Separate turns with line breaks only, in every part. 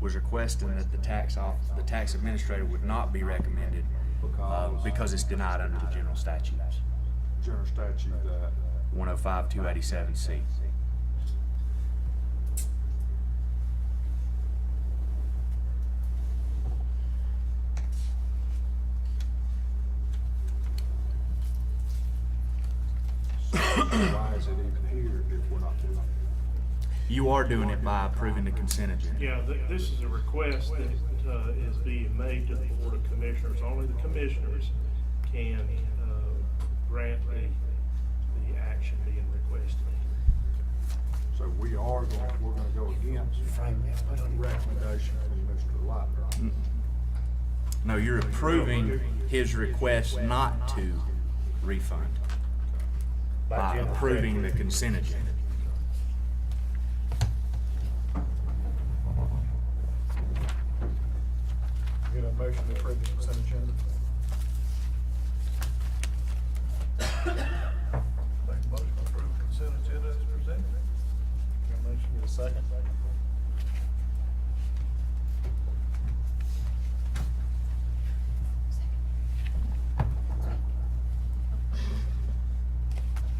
was requesting that the tax off, the tax administrator would not be recommended, uh,
Because
because it's denied under the general statutes,
general statute that,
one oh five, two eighty-seven C.
so why is it even here if we're not doing it?
You are doing it by approving the consent agenda.
Yeah, th- this is a request that uh, is being made to the Board of Commissioners. Only the commissioners can uh, grant the, the action being requested.
So we are going, we're gonna go against the recommendation from Mr. Lightner.
Mm. No, you're approving his request not to refund by approving the consent agenda.
Get a motion to approve the consent agenda?
Make a motion to approve consent agenda as presented.
motion, get a second?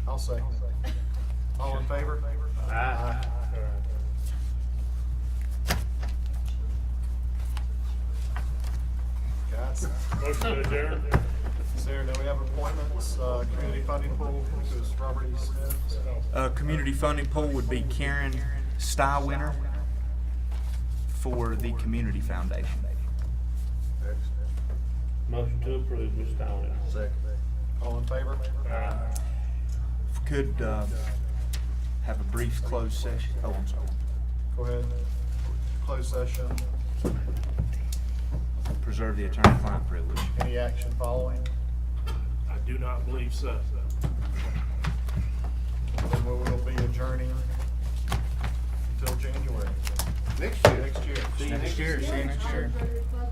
I'll second. All in favor? Aye. Guys,
Motion adjourned.
Sarah, do we have appointments, uh, community funding pool, which is Robert E. Smith?
Uh, community funding pool would be Karen Stywinner for the Community Foundation.
Motion to approve, Ms. Dolan.
Second. All in favor?
If we Could, uh, have a brief closed session. Oh, I'm sorry.
Go ahead, close session,
Preserve the attorney-client privilege.
any action following?
I do not believe so.
Then we will be adjourning until January. Next year. Next year.
Next year, see you next year.